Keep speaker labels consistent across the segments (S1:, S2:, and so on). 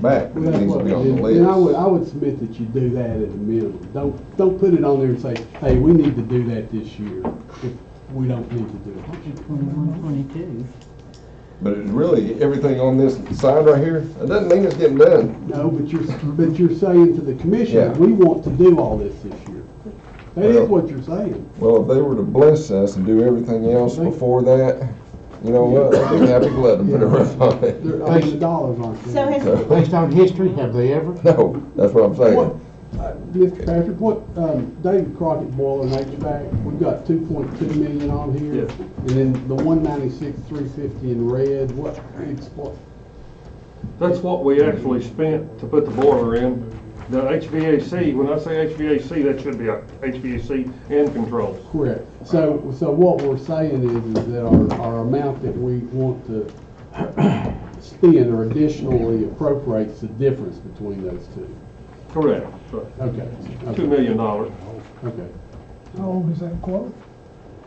S1: back, but
S2: Well,
S1: it
S2: that's
S1: needs to
S2: what
S1: be
S2: it
S1: on
S2: is.
S1: the
S2: And I would,
S1: list.
S2: I would submit that you do that at a minimum. Don't, don't put it on there and say, hey, we need to do that this year, if we don't need to do it.
S3: Twenty-one, twenty-two.
S1: But it's really, everything on this side right here, it doesn't mean it's getting done.
S2: No, but you're, but you're saying to the commission,
S1: Yeah.
S2: we want to do all this this year. That
S1: Well-
S2: is what you're saying.
S1: Well, if they were to bless us and do everything else before that, you know what, I'd be happy to let them put a roof on it.
S2: They're, I mean, the dollars aren't
S4: So
S2: there.
S4: has,
S3: Based on history, have they ever?
S1: No, that's what I'm
S2: What-
S1: saying.
S2: uh, Mr. Patrick, what, um, David Crockett Boiler and HVAC, we've got two point two million on here.
S5: Yes.
S2: And then the one ninety-six, three fifty in red, what, expl-
S5: That's what we actually spent to put the boiler in. The HVAC, when I say HVAC, that should be a HVAC and controls.
S2: Correct. So, so what we're saying is, is that our, our amount that we want to spend or additionally appropriates the difference between those two.
S5: Correct. So,
S2: Okay,
S5: Two
S2: okay,
S5: million dollars.
S2: okay.
S6: How old is that quote?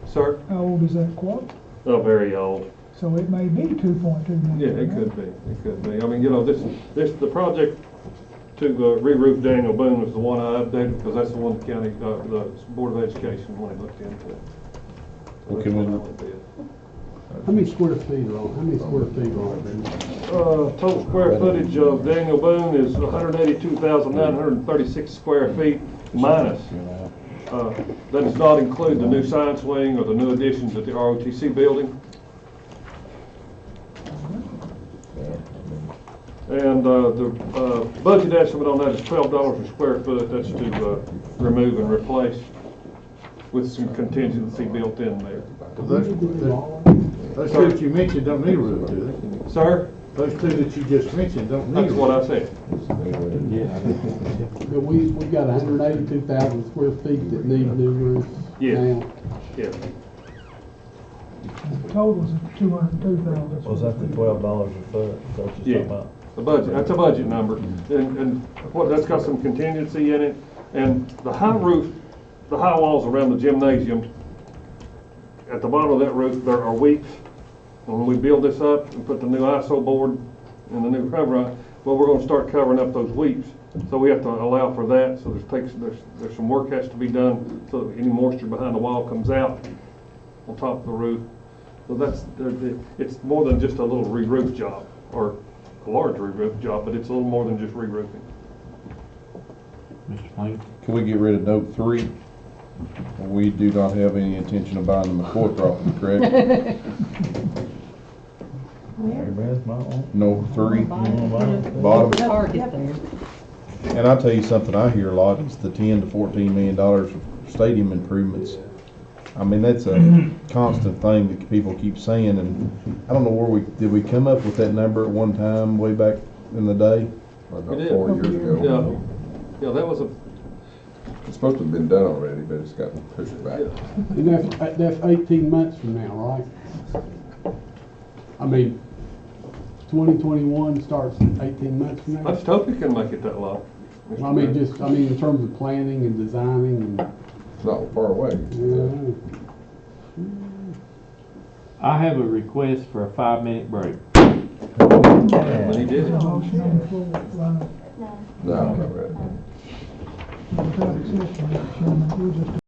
S5: Sir?
S6: How old is that quote?
S5: Oh, very old.
S6: So it may be two point two
S5: Yeah,
S6: million.
S5: it
S6: right?
S5: could be, it could be. I mean, you know, this, this, the project to uh, re-roof Daniel Boone is the one I updated because that's the one the county, uh, the Board of Education wanted looked into.
S7: Okay, well, now-
S2: How many square feet are on, how many square feet are on there?
S5: Uh, total square footage of Daniel Boone is hundred eighty-two thousand nine hundred and thirty-six square feet minus. Uh, that does not include the new science wing or the new additions at the ROTC building. And, uh, the, uh, budget estimate on that is twelve dollars a square foot, that's to, uh, remove and replace with some contingency built in there.
S8: Those two that you mentioned don't need a roof, do they?
S5: Sir,
S8: Those two that you just mentioned don't need
S5: that's
S8: a
S5: what
S8: roof.
S5: I said.
S2: But we, we got hundred eighty-two thousand square feet that need new roofs
S5: Yeah.
S2: now.
S5: Yeah.
S6: The Totals of two hundred and two thousand.
S7: Was that the twelve dollars a foot, is that what
S5: Yeah.
S7: you're talking about?
S5: The budget, that's a budget number, and, and what, that's got some contingency in it, and the high roof, the high walls around the gymnasium, at the bottom of that roof, there are weeks, when we build this up and put the new ISO board and the new cover on, well, we're gonna start covering up those weeks, so we have to allow for that, so there's takes, there's, there's some work has to be done, so that any moisture behind the wall comes out on top of the roof, so that's, there- there- it's more than just a little re-roof job, or a large re-roof job, but it's a little more than just re-roofing.
S7: Mr. Plain?
S9: Can we get rid of note three? We do not have any intention of buying the McCoy property, correct?
S7: Everybody's my own.
S9: Note three.
S3: Bottom.
S9: Bottom.
S3: Target there.
S9: And I'll tell you something I hear a lot, it's the ten to fourteen million dollars for stadium improvements. I mean, that's a constant thing that people keep saying, and I don't know where we, did we come up with that number at one time way back in the day?
S1: About
S5: It is.
S1: four years
S5: Yeah,
S1: ago.
S5: yeah, that was a,
S1: It's supposed to have been done already, but it's got pushed back.
S2: And that's, that's eighteen months from now, right? I mean, twenty twenty-one starts eighteen months from now.
S5: I just hope you can make it that long. Mr.
S2: I mean,
S5: Mayor.
S2: just, I mean, in terms of planning and designing and,
S1: It's not far away.
S2: you
S10: I have a request for a five-minute break.
S5: When he did it.
S6: Motion on the floor, Ryan,
S1: No, not really.
S6: without exception, Mr. Chairman, we're just